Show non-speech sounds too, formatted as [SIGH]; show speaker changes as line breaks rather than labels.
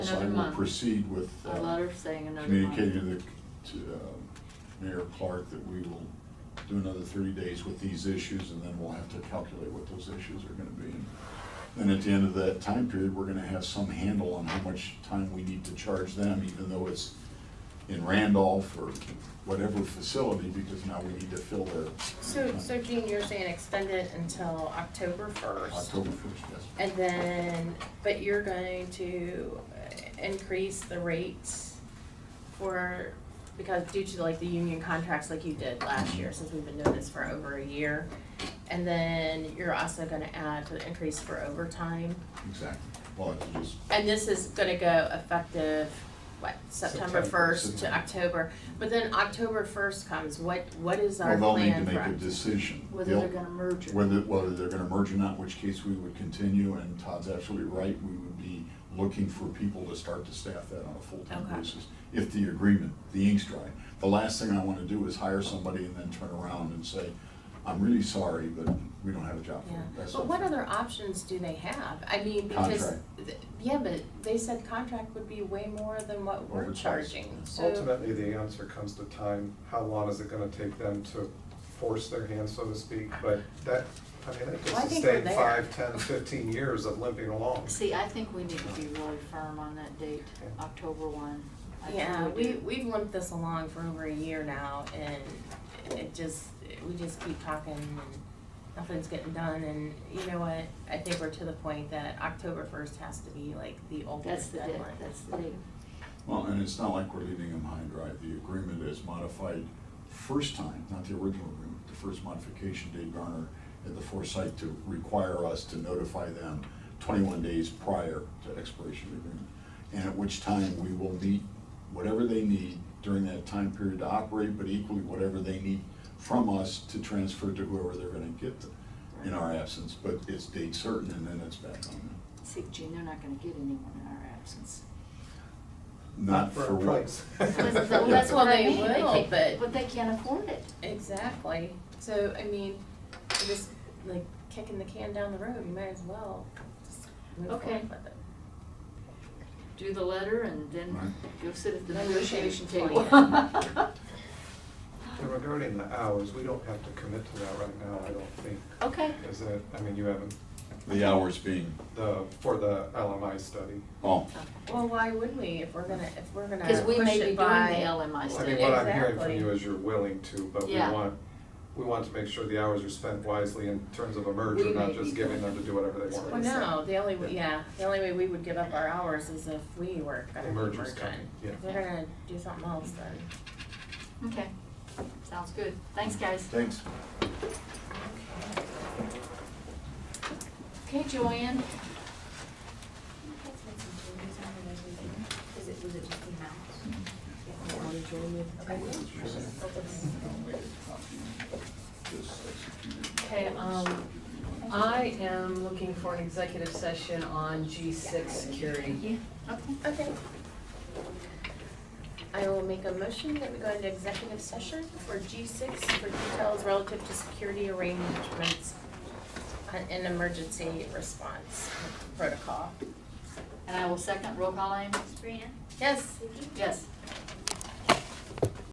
another
I will
month.
proceed with.
A
uh,
letter saying another month.
Communicating to, the- to um, Mayor Clark that we will do another thirty days with these issues, and then we'll have to calculate what those issues are gonna be. And at the end of that time period, we're gonna have some handle on how much time we need to charge them, even though it's in Randolph or whatever facility, because now we need to fill their
So, so Gene, you're saying extend it until October first?
October first, yes.
And then, but you're going to uh, increase the rates for, because due to like the union contracts like you did last year, since we've been doing this for over a year. And then you're also gonna add to the increase for overtime.
Exactly. Well, it's just,
And this is gonna go effective, what, September
September,
first to
September.
October? But then October first comes, what, what is our
well,
plan
they'll need
for?
to make a decision.
Whether they're
They'll-
gonna merge it.
Whether, whether they're gonna merge or not, in which case we would continue, and Todd's absolutely right, we would be looking for people to start to staff that on a full-time
Okay.
basis, if the agreement, the ink's dry. The last thing I wanna do is hire somebody and then turn around and say, I'm really sorry, but we don't have a job for you.
Yeah,
That's
but what
not-
other options do they have? I mean, because,
Contract.
th- yeah, but they said contract would be way more than what we're
Overpriced.
charging, so.
Ultimately, the answer comes to time, how long is it gonna take them to force their hand, so to speak, but that, I mean, that
Well, I think we're
could sustain
there.
five, ten, fifteen years of limping along.
See, I think we need to be really firm on that date, October one. I think
Yeah, we,
do.
we've limped this along for over a year now, and it just, we just keep talking, and nothing's getting done, and you know what? I think we're to the point that October first has to be like the
That's
ultimate
the date,
deadline.
that's the date.
Well, and it's not like we're leaving them high and dry, the agreement is modified first time, not the original agreement, the first modification, Dave Garner had the foresight to require us to notify them twenty-one days prior to expiration of the agreement. And at which time we will meet whatever they need during that time period to operate, but equally whatever they need from us to transfer to whoever they're gonna get in our absence, but it's date certain and then it's back on them.
See, Gene, they're not gonna get anyone in our absence.
Not
a
for what?
[LAUGHS]
price.
[LAUGHS] Well,
[LAUGHS]
that's what
Well,
I
they
mean, they
will,
can't-
but-
But they can't afford it.
Exactly, so, I mean, we're just like kicking the can down the road, you might as well just move forward
Okay.
with it.
Do the letter and then
Right.
go sit at the
Then we can
negotiation table.
plan.
[LAUGHS]
And regarding the hours, we don't have to commit to that right now, I don't think.
Okay.
Is it, I mean, you haven't,
The hours being,
the, for the LMI study.
oh,
Well, why would we, if we're gonna, if we're gonna push
Cause
it by?
we may be doing the LMI
Well, I
study.
mean, what I'm hearing from
Exactly.
you is you're willing to, but we
Yeah.
want, we want to make sure the hours are spent wisely in terms of a merger,
We may
not
be
just giving
doing-
them to do whatever they
That's
want.
Well, no, the only, way-
Yeah.
yeah, the only way we would give up our hours is if we were gonna be merging.
Merger's coming, yeah.
If they're gonna do something else, then.
Okay, sounds good. Thanks, guys.
thanks.
Okay, Joanne.
Is it, was it just the amount?
Okay, um, I am looking for an executive session on G six security.
Okay.
Okay. I will make a motion that we go into executive session for G six for details relative to security arrangements on- and emergency response protocol.
And I will second, roll call aim.
Sabrina,
Yes?
Vicky,
Yes.